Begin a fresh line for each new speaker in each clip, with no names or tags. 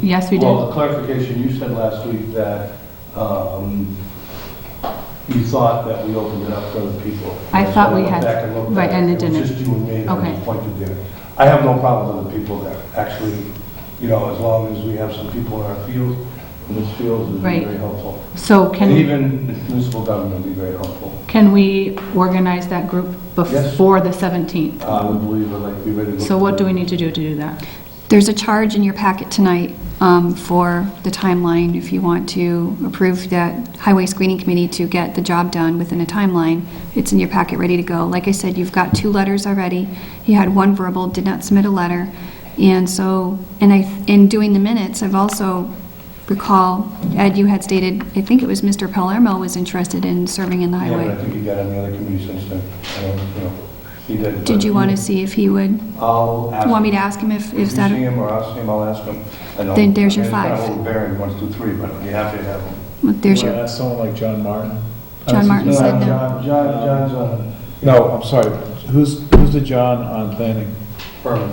Yes, we
Well,
did.
a clarification, you said last week that um, you thought that we opened it up for other people.
I thought we
So I
had-
went back and looked at
right, and it
was
didn't.
just you and me that
Okay.
was pointed there. I have no problem with the people there, actually, you know, as long as we have some people in our field, in this field, it would be
Right.
very helpful.
So
And
can,
even the municipal government would be very helpful.
can we organize that group before the 17th?
I would believe, I'd like, to be ready to.
So what do we need to do to do that?
There's a charge in your packet tonight um, for the timeline, if you want to approve that Highway Screening Committee to get the job done within a timeline. It's in your packet, ready to go. Like I said, you've got two letters already. You had one verbal, did not submit a letter. And so, and I, in doing the minutes, I've also recall, Ed, you had stated, I think it was Mr. Palermo was interested in serving in the
Yeah, but I
highway.
think he got on the other committee since then. I don't, you know, he did.
Did
but-
you want to see if he would,
I'll ask.
want me to ask him
If
if, if
you
that?
see him or I see him, I'll ask him. I know-
Then there's your
I mean, It's
five.
kind of overbearing, one, two, three, but I'd be happy to have him.
There's
You wanna
your,
ask someone like John Martin?
John Martin said
No,
no.
uh, John, John, John's uh, on
No, I'm sorry, who's, who's the John on planning?
permanent.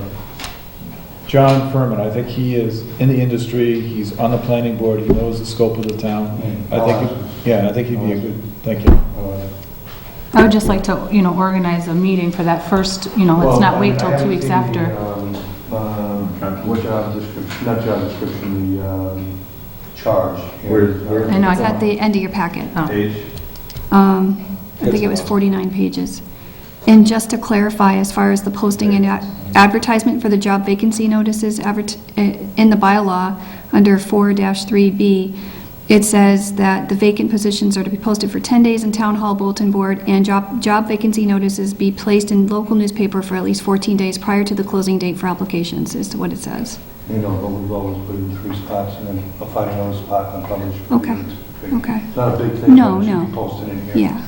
John Furman, I think he is in the industry, he's on the planning board, he knows the scope of the town. I think, yeah, I think he'd be a good, thank you.
Uh,
I would just like to, you know, organize a meeting for that first, you know, let's not wait till two weeks
uh,
after.
um, What um, job description, not job description, the um, charge.
Where- where-
I know, I got the end of your packet.
Oh,
Page?
Um, I think it was 49 pages. And just to clarify, as far as the posting and ad- advertisement for the job vacancy notices advert- eh, in the bylaw, under 4-3B, it says that the vacant positions are to be posted for 10 days in Town Hall Bulletin Board, and job job vacancy notices be placed in local newspaper for at least 14 days prior to the closing date for applications, is what it says.
You know, but we've always put in three spots and then a five dollar spot on published.
Okay, okay.
It's not a big thing.
No,
but it should
no.
be posted in here.
Yeah.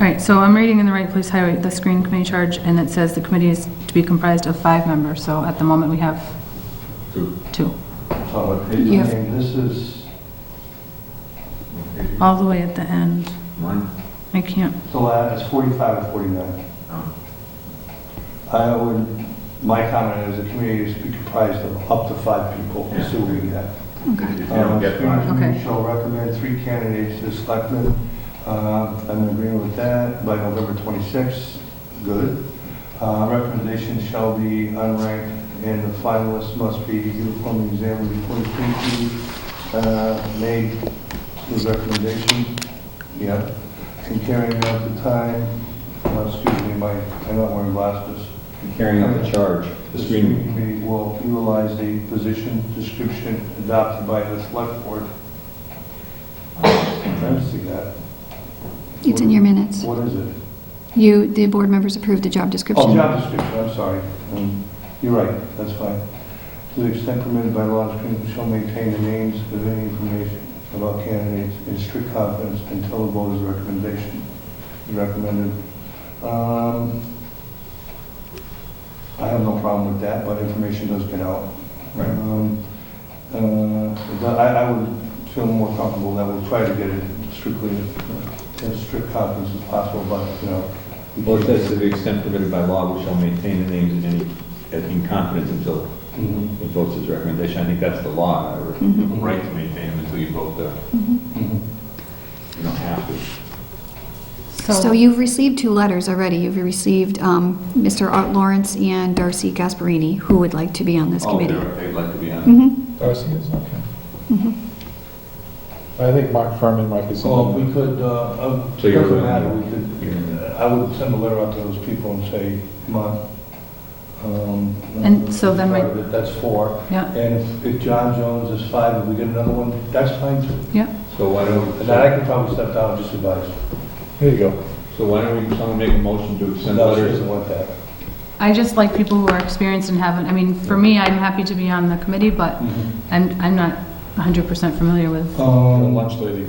All right, so I'm reading in the right place, highway, the screening committee charge, and it says the committee is to be comprised of five members, so at the moment, we have
Two.
two,
So, it- I
You have-
mean, this is,
all the way at the end.
One?
I can't,
the last, it's forty-five and forty-nine.
Oh.
I would, my comment is the community is to be comprised of up to five people,
Yeah.
so we get.
If you don't get
Uh,
five,
screening
Okay.
committee Shall recommend three candidates to the selectmen. Uh, I'm in agreement with that, by November 26th, good. Uh, Recommendations shall be unranked, and the finalists must be uniformly examined before the committee uh, made his recommendation. Yeah, and carrying out the time, uh, excuse me, my, I'm not wearing glasses.
carrying out the charge, the
The
screening.
screening committee will utilize the position description adopted by the select board. I don't see that.
It's in your minutes.
What is it?
You, the board members approved the job description.
Oh, job description, I'm sorry. Um, You're right, that's fine. To the extent permitted by law, the screening shall maintain the names of any information about candidates in strict confidence until the voter's recommendation is recommended. Um, I have no problem with that, but information does get out.
Right.
Um, uh, I I would feel more comfortable that we try to get it strictly, uh, as strict confidence as possible, but, you know. we
Well, it
can't-
says to the extent permitted by law, we shall maintain the names in any, in confidence until
Mhm.
the votes is recommendation. I think that's the law, or
Mm-hmm.
the right to maintain them until you vote the, Mm-hmm. you don't have to.
So you've received two letters already. You've received um, Mr. Art Lawrence and Darcy Gasparini, who would like to be on this
Oh,
committee.
they're- They'd like to be on it.
Mhm.
Darcy is, okay.
Mm-hmm.
I think Mark Furman might be
Well, if
someone.
Oh, we could, uh, it
So you're
doesn't
really-
matter, we could, I would send a letter out to those people and say, come on. um,
And so then we-
part of it, That's four.
Yeah.
And if- if John Jones is five, and we get another one, that's fine too.
yeah,
So why don't,
And then I can probably step down and just advise.
Here you go.
so why don't we, someone make a motion to send
No, she
letters?
doesn't want that.
I just like people who are experienced and haven't, I mean, for me, I'm happy to be on the committee, but
Mm-hmm.
I'm, I'm not 100% familiar with,
The
Um,
lunch lady,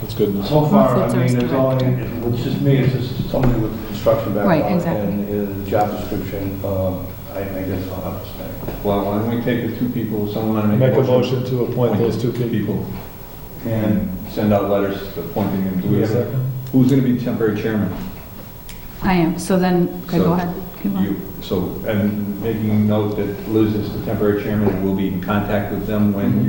that's good enough.
So far, I
Food service
mean, there's only,
director.
it's just me, it's just somebody with instruction background.
Right, exactly.
And uh, job description, um, I I guess I'll have to say.
Well, why don't we take the two people, someone wanna
Make a motion to appoint those two people.
people and send out letters appointing them. Do we have a-
second?
Who's going to be temporary chairman?
I am, so then, okay,
So
go ahead. Keep going.
You, so, and making note that Liz is the temporary chairman, and we'll be in contact with them when